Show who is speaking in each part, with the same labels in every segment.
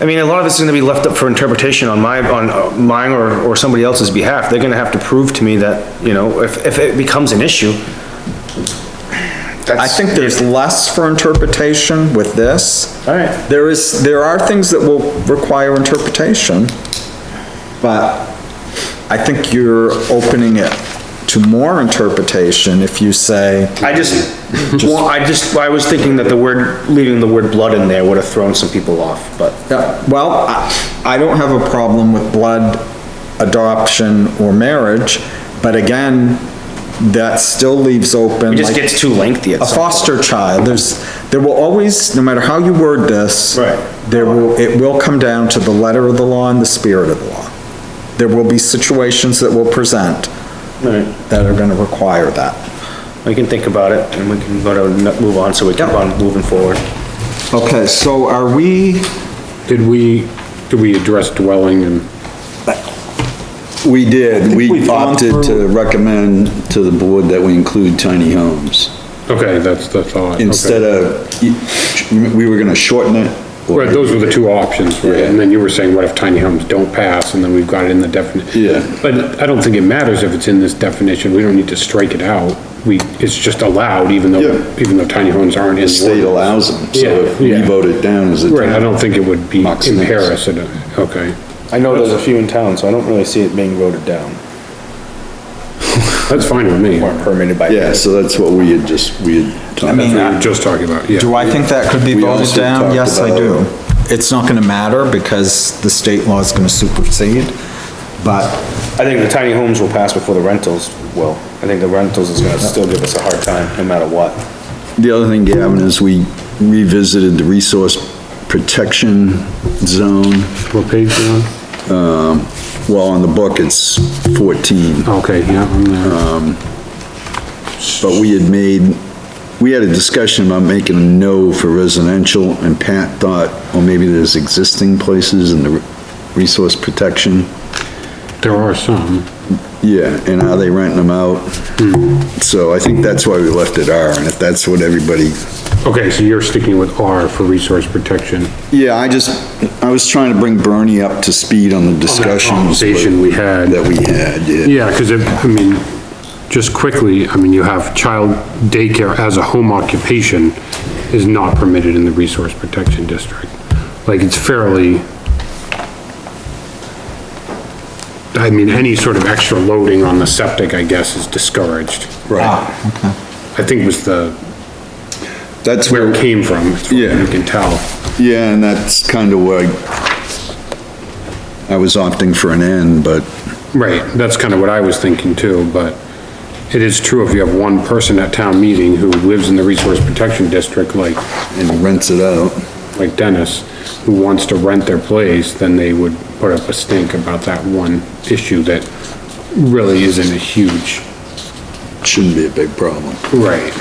Speaker 1: I mean, a lot of it's gonna be left up for interpretation on my, on uh, mine or, or somebody else's behalf. They're gonna have to prove to me that, you know, if, if it becomes an issue.
Speaker 2: I think there's less for interpretation with this.
Speaker 1: All right.
Speaker 2: There is, there are things that will require interpretation, but I think you're opening it to more interpretation if you say,
Speaker 1: I just, well, I just, I was thinking that the word, leaving the word blood in there would have thrown some people off, but.
Speaker 2: Yeah, well, I, I don't have a problem with blood adoption or marriage, but again, that still leaves open.
Speaker 1: It just
Speaker 2: like,
Speaker 1: gets too lengthy at
Speaker 2: A
Speaker 1: some point.
Speaker 2: foster child, there's, there will always, no matter how you word this.
Speaker 1: Right.
Speaker 2: There will, it will come down to the letter of the law and the spirit of the law. There will be situations that will present that are gonna require that.
Speaker 1: We can think about it and we can go to, n- move on so we keep
Speaker 2: Yep.
Speaker 1: on moving forward.
Speaker 2: Okay, so are we,
Speaker 3: Did we, did we address dwelling and,
Speaker 4: We did,
Speaker 2: we've
Speaker 4: we
Speaker 2: gone
Speaker 4: opted to
Speaker 2: through-
Speaker 4: recommend to the board that we include tiny homes.
Speaker 3: okay, that's, that's all. okay.
Speaker 4: Instead of, you- we were gonna shorten it. or-
Speaker 3: Right, those were the two options, right? And then you were saying, what if tiny homes don't pass, and then we've got it in the definite.
Speaker 4: Yeah.
Speaker 3: But I don't think it matters if it's in this definition, we don't need to strike it out. We, it's just allowed, even though,
Speaker 4: Yeah.
Speaker 3: even though tiny homes aren't in.
Speaker 4: The state allows them, so
Speaker 3: Yeah,
Speaker 4: if we
Speaker 3: yeah.
Speaker 4: vote it down as a.
Speaker 3: Right, I don't think it would be
Speaker 4: Marks
Speaker 3: in
Speaker 4: and
Speaker 3: Paris, it- okay.
Speaker 1: I know there's a few in town, so I don't really see it being voted down
Speaker 3: That's fine with me.
Speaker 1: or permitted by.
Speaker 4: Yeah, so that's what we had just, we had. talked
Speaker 3: That's
Speaker 2: mean,
Speaker 4: about.
Speaker 3: what we were just talking about, yeah.
Speaker 2: do I think that could be
Speaker 4: We
Speaker 2: voted
Speaker 4: also
Speaker 2: down?
Speaker 4: talked
Speaker 2: Yes, I
Speaker 4: about-
Speaker 2: do. It's not gonna matter because the state law is gonna supersede, but
Speaker 1: I think the tiny homes will pass before the rentals will. I think the rentals is gonna still give us a hard time, no matter what.
Speaker 4: The other thing, Gavin, is we revisited the resource protection zone.
Speaker 3: What page you on?
Speaker 4: Well, on the book, it's 14.
Speaker 3: Okay, yeah, I'm
Speaker 4: Uh,
Speaker 3: there.
Speaker 4: But we had made, we had a discussion about making a no for residential, and Pat thought, well, maybe there's existing places in the resource protection.
Speaker 3: There are some.
Speaker 4: Yeah, and are they renting them out? So I think that's why we left it R, and if that's what everybody,
Speaker 3: Okay, so you're sticking with R for resource protection.
Speaker 4: yeah, I just, I was trying to bring Bernie up to speed on the discussions.
Speaker 3: Conversation we had.
Speaker 4: That we had, yeah.
Speaker 3: Yeah, because it, I mean, just quickly, I mean, you have child daycare as a home occupation is not permitted in the resource protection district. Like, it's fairly, I mean, any sort of extra loading on the septic, I guess, is discouraged.
Speaker 4: Right.
Speaker 3: I think was the,
Speaker 4: That's
Speaker 3: where it came from, as far as
Speaker 4: Yeah.
Speaker 3: you can tell.
Speaker 4: Yeah, and that's kind of where I was opting for an N, but
Speaker 3: Right, that's kind of what I was thinking too, but it is true if you have one person at town meeting who lives in the resource protection district, like,
Speaker 4: and rents it out.
Speaker 3: like Dennis, who wants to rent their place, then they would put up a stink about that one issue that really isn't a huge.
Speaker 4: Shouldn't be a big problem.
Speaker 3: Right.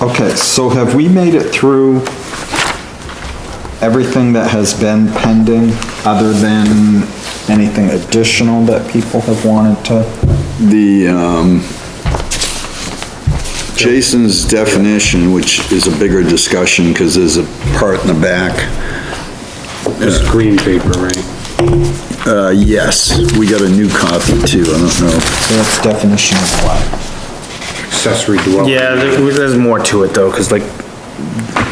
Speaker 2: Okay, so have we made it through everything that has been pending, other than anything additional that people have wanted to?
Speaker 4: The, um, Jason's definition, which is a bigger discussion because there's a part in the back.
Speaker 3: This green paper, right?
Speaker 4: Uh, yes, we got a new copy too, I don't know.
Speaker 2: So that's definition of what?
Speaker 3: Accessory dwelling.
Speaker 1: Yeah, there- there's more to it though, cause like,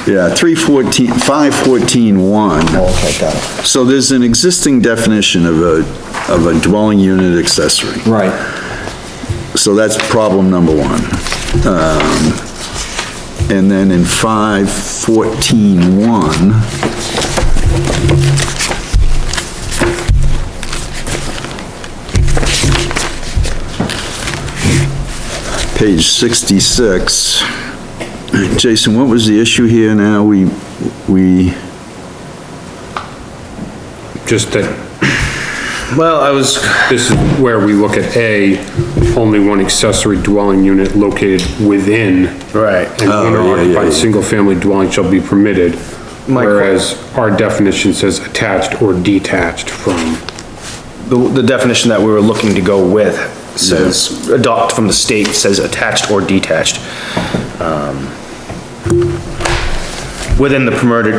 Speaker 4: Yeah, three fourteen, five fourteen one.
Speaker 2: Oh, okay, got it.
Speaker 4: So there's an existing definition of a, of a dwelling unit accessory.
Speaker 2: Right.
Speaker 4: So that's problem number one. Um, And then in 514.1, page 66, Jason, what was the issue here now? We, we,
Speaker 3: Just that,
Speaker 1: well, I was,
Speaker 3: this is where we look at A, only one accessory dwelling unit located within
Speaker 1: right.
Speaker 3: an owner-occupied
Speaker 4: Oh, yeah.
Speaker 3: single-family dwelling shall be permitted,
Speaker 1: My que-
Speaker 3: whereas our definition says attached or detached from.
Speaker 1: The, the definition that we were looking to go with says, adopt from the state says attached or detached. Um, Within the permitted,